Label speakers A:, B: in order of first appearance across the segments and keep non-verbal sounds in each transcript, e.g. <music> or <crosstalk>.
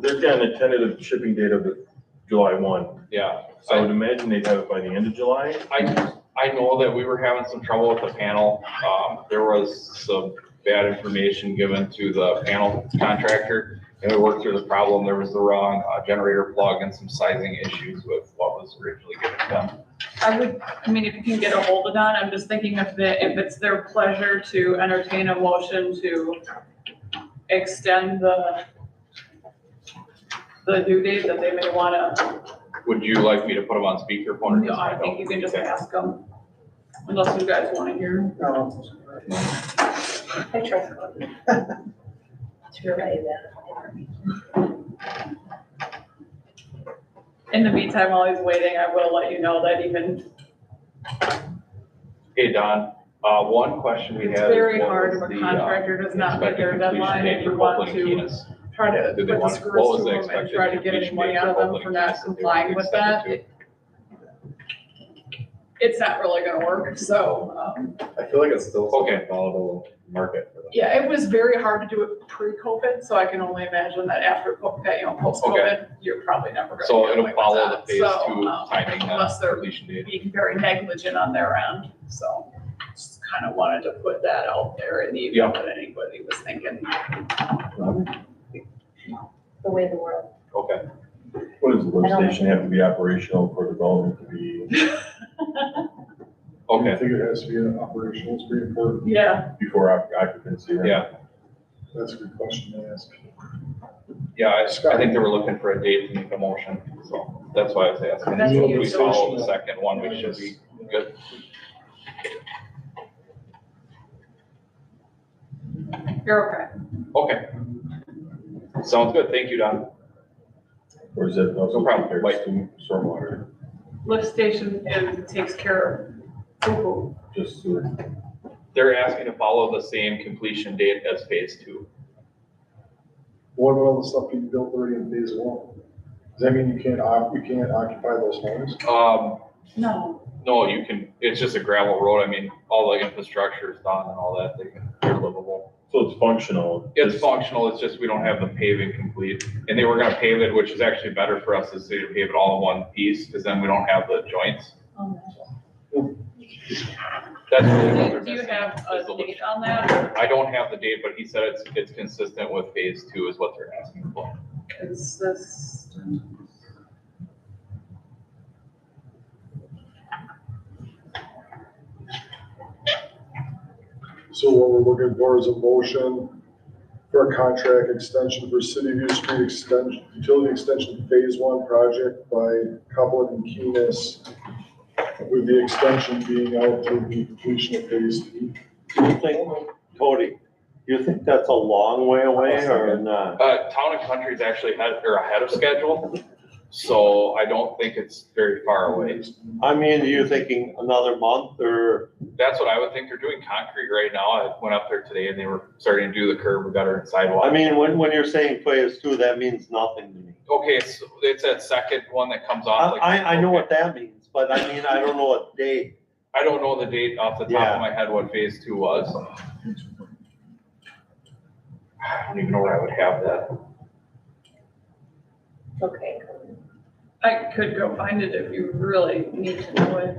A: they've got a tentative shipping date of July one,
B: Yeah,
A: so I would imagine they'd have it by the end of July.
B: I, I know that we were having some trouble with the panel. Um, there was some bad information given to the panel contractor. And we worked through the problem. There was the wrong uh, generator plug and some sizing issues with what was originally given to them.
C: I would, I mean, if you can get a hold of Don, I'm just thinking if the, if it's their pleasure to entertain a motion to extend the the due date that they may wanna,
B: Would you like me to put them on speakerphone? or
C: you know,
B: just
C: I
B: find out?
C: think you can just
B: Okay.
C: ask them. Unless you guys wanna hear.
D: Um,
E: I trust Cody <laughs> to relay that.
C: In the meantime, while he's waiting, I will let you know that even,
B: Hey, Don, uh, one question we had.
C: it's
B: is
C: very
B: what
C: hard
B: was
C: if a
B: the, uh,
C: contractor does not meet
B: expected
C: their
B: completion
C: deadline
B: date
C: and you
B: for
C: want
B: Copeland and
C: to
B: Keenest?
C: try to
B: Did
C: put
B: they
C: the
B: want-
C: screws
B: what
C: to
B: was the
C: them and
B: expected
C: try to get any
B: completion
C: money
B: date
C: out of
B: for
C: them
B: Copeland
C: for
B: and
C: not
B: Keenest that they were
C: complying with that.
B: expected
C: It's not really gonna work, so, um,
F: I feel like it's still
B: to? Okay,
F: a volatile market for them.
C: Yeah, it was very hard to do it pre-COVID, so I can only imagine that after, co- that, you know, post-COVID, you're probably never gonna.
B: So
C: get
B: it'll
C: away with
B: follow the
C: that.
B: phase
C: So,
B: two
C: um,
B: timing
C: Unless
B: then,
C: they're
B: completion date.
C: being very negligent on their end, so just kind of wanted to put that out there in the
B: Yeah.
C: event that anybody was thinking.
E: The way the world.
B: Okay,
A: What does the lift
E: I don't-
A: station have to be operational for development to be
B: okay.
D: I think it has to be an operational, it's pretty important.
C: Yeah,
A: before oc- occupancy?
F: Mm-hmm.
A: right?
B: Yeah,
D: That's a good question to ask.
B: yeah, I, I think they were looking for a date to make a motion, so that's why I was asking.
C: That's
B: So if
C: huge.
B: We follow the second one, we should be good.
C: you're okay.
B: Okay. Sounds good, thank you, Don.
A: Or is that also
B: No problem.
A: compared
B: Like-
A: to stormwater,
C: Lift station is, takes care of poo-poo.
A: just sewer?
B: They're asking to follow the same completion date as phase two.
D: What about all the stuff you built already in phase one? Does that mean you can't, oc- you can't occupy those homes?
B: Um,
C: No,
B: no, you can, it's just a gravel road, I mean, all the infrastructure is done and all that, they can, they're livable.
A: So it's functional?
B: It's functional, it's just we don't have the paving complete, and they were gonna pave it, which is actually better for us, is to pave it all in one piece, because then we don't have the joints. That's really what they're
C: do you
B: missing,
C: have
B: is the
C: a
B: look.
C: date on that?
B: I don't have the date, but he said it's, it's consistent with phase two is what they're asking for.
C: Is this?
D: So what we're looking for is a motion for a contract extension for City View Street extension, utility extension phase one project by Copeland and Keenest with the extension being out to the completion of phase three.
G: You think, Cody, you think that's a long way away or not?
B: Uh, Town and Country is actually ahead, or ahead of schedule, so I don't think it's very far away.
G: I mean, are you thinking another month or,
B: That's what I would think, they're doing concrete right now, I went up there today and they were starting to do the curb, gutter and sidewalk.
G: I mean, when, when you're saying phase two, that means nothing to me.
B: Okay, it's, it's that second one that comes
G: I,
B: off. like-
G: I, I know what that means, but I mean, I don't know what date.
B: I don't know the date off the top
G: Yeah.
B: of my head what phase two was. I don't even know where I would have that.
E: Okay.
C: I could go find it if you really need to know it.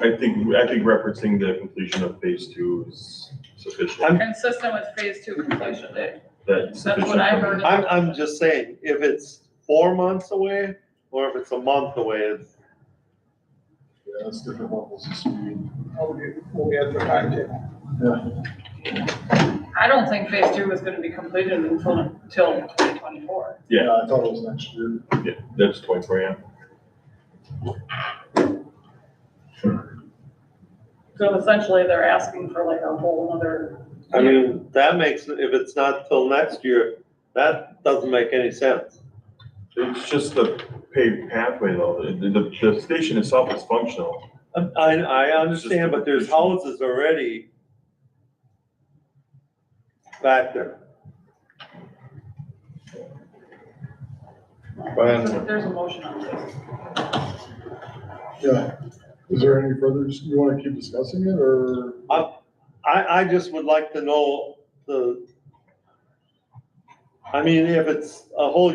A: I think, I think referencing the completion of phase two is sufficient.
G: I'm-
C: Consistent with phase two completion date.
A: That's
C: That's what I heard.
G: I'm, I'm just saying, if it's four months away or if it's a month away, it's,
D: Yeah, that's different levels of speed.
C: I don't think phase two was gonna be completed until, until twenty twenty-four.
A: Yeah.
D: I thought it was next year.
A: Yeah, that's twenty-four, yeah.
C: So essentially, they're asking for like a whole other.
G: I mean, that makes, if it's not till next year, that doesn't make any sense.
A: It's just the paved pathway though, the, the, the station itself is functional.
G: I, I understand, but there's houses already back there.
C: There's a- there's a motion on this.
D: Yeah. Is there any further, you want to keep discussing it or?
G: I, I just would like to know the, I mean, if it's a whole